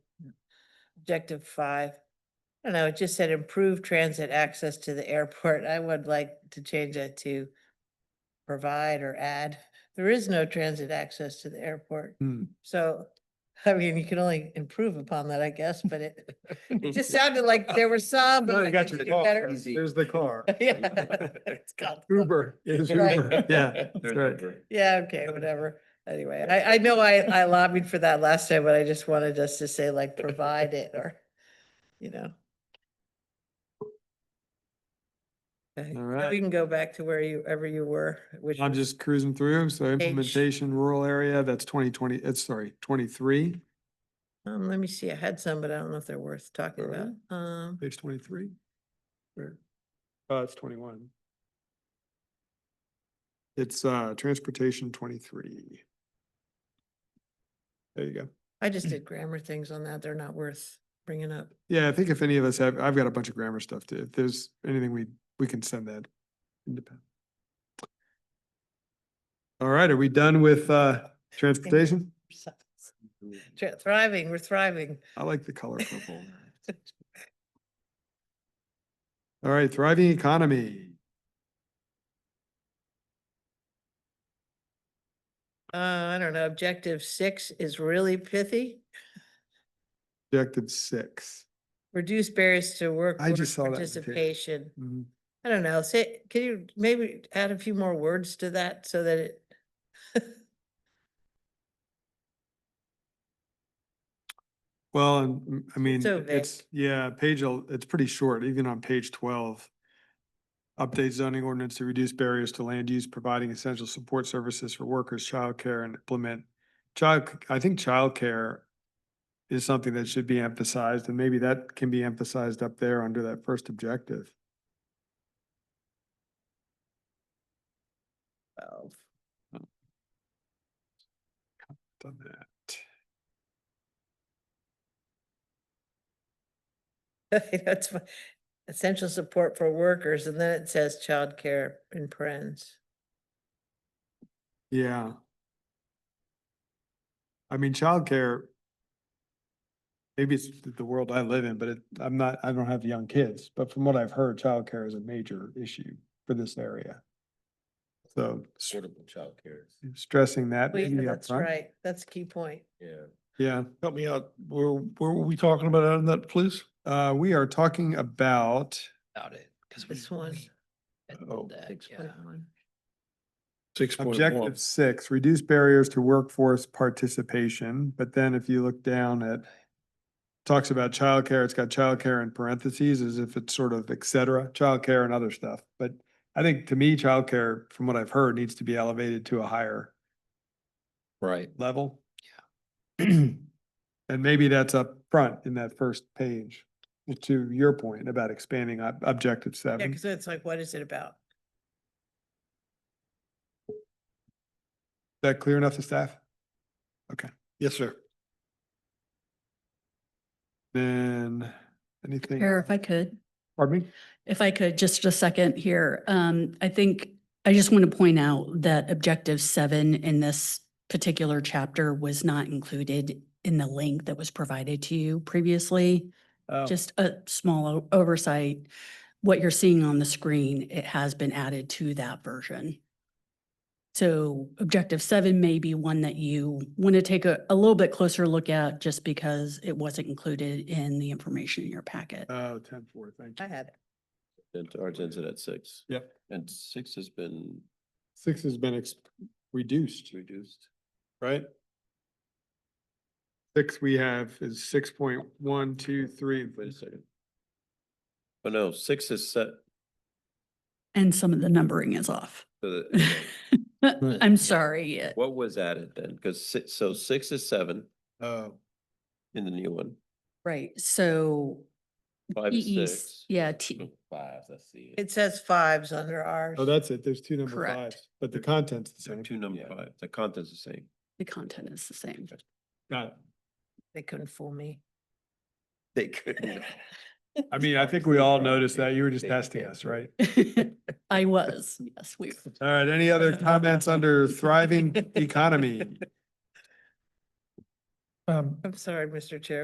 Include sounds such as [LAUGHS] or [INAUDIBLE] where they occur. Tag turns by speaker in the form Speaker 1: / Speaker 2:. Speaker 1: objective five. I don't know, it just said improve transit access to the airport. [LAUGHS] I would like to change that to provide or add. There is no transit access to the airport. [LAUGHS]
Speaker 2: Hmm.
Speaker 1: So, I mean, you can only improve upon that, I guess, but
Speaker 2: [LAUGHS]
Speaker 1: it, it just sounded like there were some. but
Speaker 2: No, you
Speaker 1: I
Speaker 2: got
Speaker 1: think we
Speaker 2: your
Speaker 1: did
Speaker 2: car.
Speaker 1: better.
Speaker 3: Easy.
Speaker 2: There's the car.
Speaker 1: [LAUGHS] Yeah.
Speaker 2: [LAUGHS]
Speaker 1: It's called-
Speaker 2: Uber is
Speaker 1: Right. [LAUGHS]
Speaker 2: Uber. Yeah, that's
Speaker 3: There's
Speaker 2: right.
Speaker 3: Uber.
Speaker 1: Yeah, okay, whatever. Anyway, I, I know I, I lobbied for that last time, but I just wanted us to say like, provide it or, you know. Okay, now
Speaker 2: All right.
Speaker 1: We can go back to where you, ever you were, which.
Speaker 2: I'm
Speaker 1: was-
Speaker 2: just cruising through. So implementation rural area, that's twenty twenty, it's sorry, twenty-three,
Speaker 1: Um, let me see, I had some, but I don't know if they're worth talking
Speaker 2: Alright.
Speaker 1: about. Um,
Speaker 2: page twenty-three. Where? Uh, it's twenty-one. It's, uh, transportation twenty-three. There you go.
Speaker 1: I just did grammar things on that. They're not worth bringing
Speaker 2: [LAUGHS]
Speaker 1: up.
Speaker 2: Yeah, I think if any of us have, I've got a bunch of grammar stuff too. If there's anything we, we can send that. independent. All right, are we done with, uh, transportation?
Speaker 1: Thr- Thriving, we're thriving.
Speaker 2: I like the color purple. All right, thriving economy.
Speaker 1: [LAUGHS] Uh, I don't know, objective six is really pithy.
Speaker 2: Objective six.
Speaker 1: Reduce barriers to work.
Speaker 2: I
Speaker 1: work
Speaker 2: just saw that one too.
Speaker 1: Participation.
Speaker 2: Mhm.
Speaker 1: I don't know, say, can you maybe add a few more words to that so that it,
Speaker 2: Well, and, mm, I mean,
Speaker 1: so
Speaker 2: it's,
Speaker 1: vague.
Speaker 2: yeah, page, el- it's pretty short, even on page twelve. Update zoning ordinance to reduce barriers to land use, providing essential support services for workers, childcare, and implement child, I think childcare is something that should be emphasized, and maybe that can be emphasized up there under that first objective.
Speaker 1: [LAUGHS] well,
Speaker 2: Done that.
Speaker 1: that's fi- essential support for workers, and then it says childcare in parens.
Speaker 2: Yeah. I mean, childcare, maybe it's th- the world I live in, but it, I'm not, I don't have young kids, but from what I've heard, childcare is a major issue for this area. So s-
Speaker 3: Suitable childcare,
Speaker 2: stressing that.
Speaker 1: Well,
Speaker 2: maybe
Speaker 1: yeah, That's
Speaker 2: upfront.
Speaker 1: right, that's a key point.
Speaker 3: yeah.
Speaker 2: Yeah,
Speaker 4: Help me out. Where, where were we talking about on that, please?
Speaker 2: uh, we are talking about,
Speaker 5: about it, because we.
Speaker 1: This one,
Speaker 4: Oh,
Speaker 1: six point one.
Speaker 4: Six point one.
Speaker 2: Objective six, reduce barriers to workforce participation, but then if you look down at talks about childcare, it's got childcare in parentheses as if it's sort of et cetera, childcare and other stuff. But I think to me, childcare, from what I've heard, needs to be elevated to a higher
Speaker 5: Right.
Speaker 2: level. Yeah. And maybe that's up front in that first page, to your point about expanding ob- objective
Speaker 1: Yeah,
Speaker 2: seven.
Speaker 1: because it's like, what is it about?
Speaker 2: Is that clear enough to staff?
Speaker 4: Yes, sir.
Speaker 2: Then anything?
Speaker 6: Mayor, if I could,
Speaker 2: Pardon me?
Speaker 6: if I could, just a second here. Um, I think, I just want to point out that objective seven in this particular chapter was not included in the link that was provided to you previously.
Speaker 2: Oh.
Speaker 6: Just a small o- oversight. What you're seeing on the screen, it has been added to that version. So objective seven may be one that you want to take a, a little bit closer look at just because it wasn't included in the information in your packet.
Speaker 2: Oh, ten four, thank
Speaker 1: I
Speaker 2: you.
Speaker 1: had, it.
Speaker 3: And ours ends at six.
Speaker 2: Yep.
Speaker 3: And six has been
Speaker 2: Six has been ex- reduced,
Speaker 3: reduced.
Speaker 2: right? Six we have is six point one, two, three,
Speaker 3: Wait a second. Oh, no, six is set.
Speaker 6: And some of the numbering is off. [LAUGHS]
Speaker 3: to the- okay.
Speaker 5: [LAUGHS]
Speaker 6: I'm sorry. it-
Speaker 3: What was added then? Because six, so six is seven
Speaker 2: oh,
Speaker 3: in the new one.
Speaker 6: Right, so.
Speaker 3: Five is
Speaker 5: E
Speaker 6: TE
Speaker 3: six.
Speaker 6: Yeah, T,
Speaker 3: Five, that's the.
Speaker 1: it says fives under ours.
Speaker 2: oh, that's it, there's two number
Speaker 6: Correct.
Speaker 2: fives, but the content's the
Speaker 3: So
Speaker 2: same.
Speaker 3: two number five, the content's the same.
Speaker 6: the content is the same.
Speaker 2: Got it.
Speaker 1: They couldn't fool me.
Speaker 3: They couldn't.
Speaker 2: I mean, I think we all noticed that, you were just testing us, right?
Speaker 6: [LAUGHS] I was, yes, we,
Speaker 2: All right, any other comments under thriving economy?
Speaker 1: [LAUGHS] I'm sorry, Mr. Chair.